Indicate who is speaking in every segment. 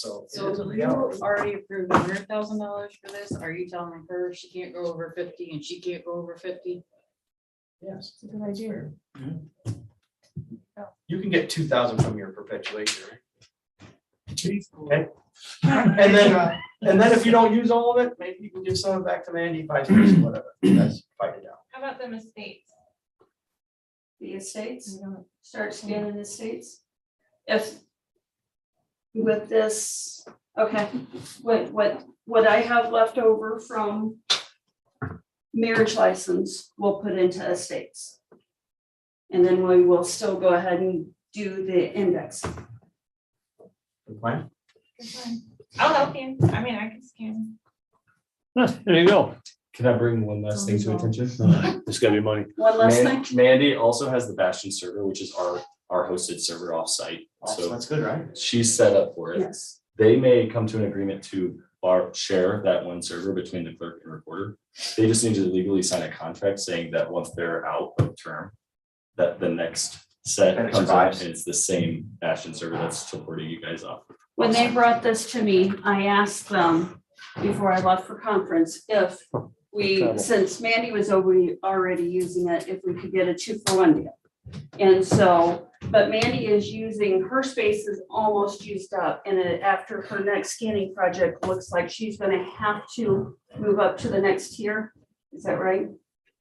Speaker 1: So it is a
Speaker 2: So you
Speaker 1: reality.
Speaker 2: already approved hundred thousand dollars for this. Are you telling her she can't go over fifty and she can't go over fifty?
Speaker 1: Yes.
Speaker 3: It's a good idea.
Speaker 4: You can get two thousand from your perpetuation. right?
Speaker 1: And then, uh, and then if you don't use all of it, maybe you can give some of it back to Mandy, vice versa, whatever. That's fight it out.
Speaker 5: How about them estates?
Speaker 6: the estates, start scanning the estates. If with this, okay, what, what, what I have left over from marriage license, we'll put into estates. And then we will still go ahead and do the index.
Speaker 4: Good plan?
Speaker 5: Good one. I'll help you. I mean, I can scan.
Speaker 7: Huh, There you go.
Speaker 8: Can I bring one last thing to attention?
Speaker 7: It's gotta be money.
Speaker 6: One last
Speaker 8: Man-
Speaker 6: thing,
Speaker 8: Mandy also has the Bastion server, which is our, our hosted server offsite.
Speaker 4: Awesome,
Speaker 8: So
Speaker 4: that's good, right?
Speaker 8: she's set up for it.
Speaker 6: yes,
Speaker 8: They may come to an agreement to bar, share that one server between the clerk and recorder. They just need to legally sign a contract saying that once they're out of term, that the next
Speaker 4: Then
Speaker 8: set
Speaker 4: it
Speaker 8: comes out
Speaker 4: survives.
Speaker 8: and it's the same Bastion server that's supporting you guys off.
Speaker 6: when they brought this to me, I asked them before I left for conference if we,
Speaker 7: Travel.
Speaker 6: since Mandy was already, already using it, if we could get a two for one deal. And so, but Mandy is using, her space is almost used up, and it- after her next scanning project, looks like she's gonna have to move up to the next tier. Is that right?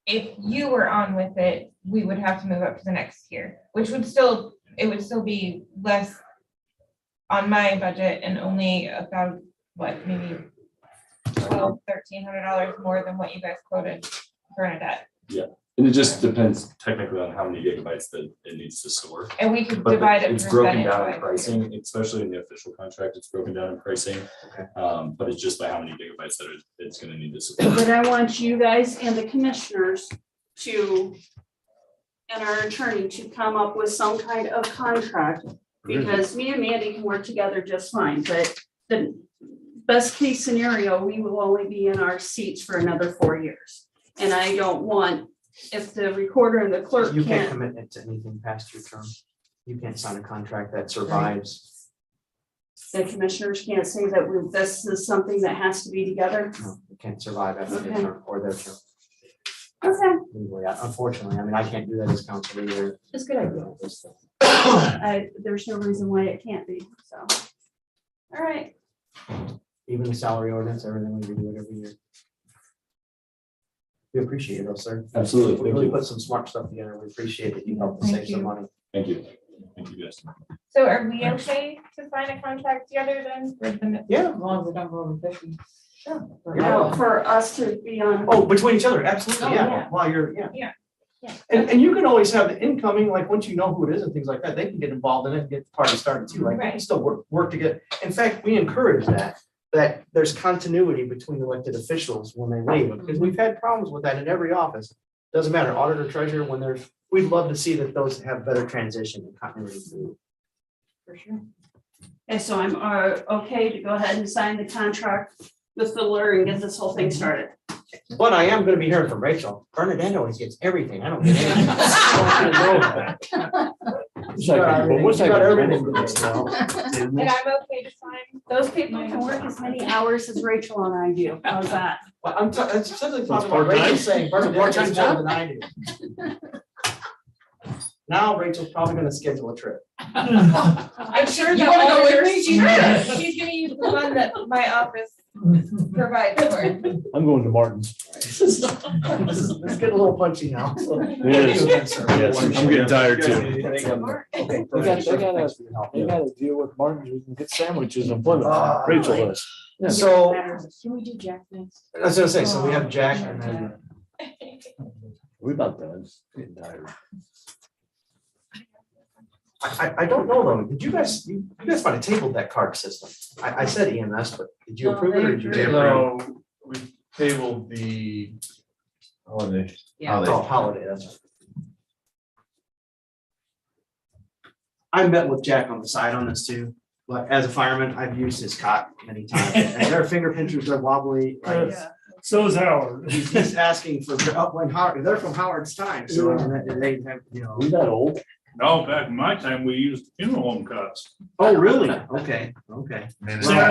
Speaker 5: If you were on with it, we would have to move up to the next tier, which would still, it would still be less on my budget and only about, what, maybe twelve, thirteen hundred dollars more than what you guys quoted Bernadette.
Speaker 8: And it just depends technically on how many gigabytes that it needs to store.
Speaker 5: And we could
Speaker 8: But
Speaker 5: divide
Speaker 8: the-
Speaker 5: it.
Speaker 8: it's broken down
Speaker 5: percentage-wise.
Speaker 8: in pricing, especially in the official contract, it's broken down in pricing. Um, but it's just by how many gigabytes that it- it's gonna need to support.
Speaker 6: But I want you guys and the commissioners to, and our attorney to come up with some kind of contract. Because me and Mandy can work together just fine, but the best case scenario, we will only be in our seats for another four years. And I don't want, if the recorder and the clerk
Speaker 1: You can't
Speaker 6: can't,
Speaker 1: commit it to anything past your term. You can't sign a contract that survives.
Speaker 6: the commissioners can't say that we- this is something that has to be together.
Speaker 1: No, you can't survive after your
Speaker 6: Okay.
Speaker 1: term or their term.
Speaker 6: Okay,
Speaker 1: Anyway, unfortunately, I mean, I can't do that as council leader.
Speaker 6: it's a good idea. I, there's no reason why it can't be, so. All right,
Speaker 1: Even the salary ordinance, everything we do it every year. We appreciate it, though, sir.
Speaker 8: Absolutely,
Speaker 1: We really put some smart stuff together. We appreciate it. You helped us
Speaker 5: Thank
Speaker 1: save some
Speaker 5: you.
Speaker 1: money.
Speaker 8: Thank you. Thank you guys.
Speaker 5: So are we okay to sign a contract together then with the
Speaker 1: Yeah.
Speaker 2: As long as they don't go over fifty.
Speaker 6: now for us to be on
Speaker 1: Oh, between each other, absolutely,
Speaker 2: Oh,
Speaker 1: yeah,
Speaker 5: yeah.
Speaker 1: while you're, yeah.
Speaker 5: Yeah, yeah.
Speaker 1: And, and you can always have the incoming, like, once you know who it is and things like that, they can get involved in it, and get the party started too, like, they can
Speaker 5: Right.
Speaker 1: still work, work together. In fact, we encourage that, that there's continuity between elected officials when they leave, because we've had problems with that in every office. Doesn't matter, auditor, treasurer, when there's, we'd love to see that those have better transition and continuity.
Speaker 6: Okay, so I'm uh, okay to go ahead and sign the contract with Fiddler and get this whole thing started.
Speaker 1: But I am gonna be hearing from Rachel, Bernadette always gets everything, I don't get anything. She got
Speaker 7: But
Speaker 1: everything-
Speaker 7: what's
Speaker 1: she
Speaker 7: that
Speaker 1: got
Speaker 7: gonna
Speaker 1: everything
Speaker 7: do?
Speaker 1: from us now.
Speaker 5: And I'm okay to sign.
Speaker 6: Those people can work as many hours as Rachel and I do. How's that?
Speaker 1: Well, I'm ta- I'm specifically
Speaker 7: So it's
Speaker 1: talking about Rachel saying Bernadette
Speaker 7: part-time?
Speaker 1: does more than I do. Now Rachel's probably gonna schedule a trip.
Speaker 5: I'm sure
Speaker 2: You
Speaker 5: the
Speaker 2: wanna go with
Speaker 5: auditor-
Speaker 2: me?
Speaker 5: She's
Speaker 2: Sure.
Speaker 5: gonna she's gonna use the one that my office provides for.
Speaker 7: I'm going to Martin's.
Speaker 1: This is, this is it's getting a little punchy now. so.
Speaker 7: Yes, yes, I'm getting tired too.
Speaker 1: Okay,
Speaker 7: They got- they got a-
Speaker 1: thanks for your help.
Speaker 7: They gotta deal with Martin's, we can get sandwiches and Plymouth.
Speaker 1: Ah.
Speaker 7: Rachel does.
Speaker 1: So,
Speaker 2: Can we do Jack next?
Speaker 1: I was gonna say, so we have Jack and then.
Speaker 7: We about done. Getting tired.
Speaker 1: I, I, I don't know though, did you guys, you you guys might have tabled that card system. I, I said EMS, but did you
Speaker 2: No,
Speaker 1: approve it or did
Speaker 2: they
Speaker 1: you?
Speaker 2: approved
Speaker 9: No, we tabled the, oh, they,
Speaker 2: Yeah.
Speaker 1: Oh, holiday, that's right. I met with Jack on the side on this too, but as a fireman, I've used his cot many times, and their finger pinchers are wobbly, like,
Speaker 9: so is Howard.
Speaker 1: he's, he's asking for, oh, when Howard, they're from Howard's time, so I mean, they have, you know.
Speaker 7: We that old?
Speaker 10: No, back in my time, we used funeral home cuts.
Speaker 9: Oh, really? Okay, okay.
Speaker 1: Man,
Speaker 9: Well,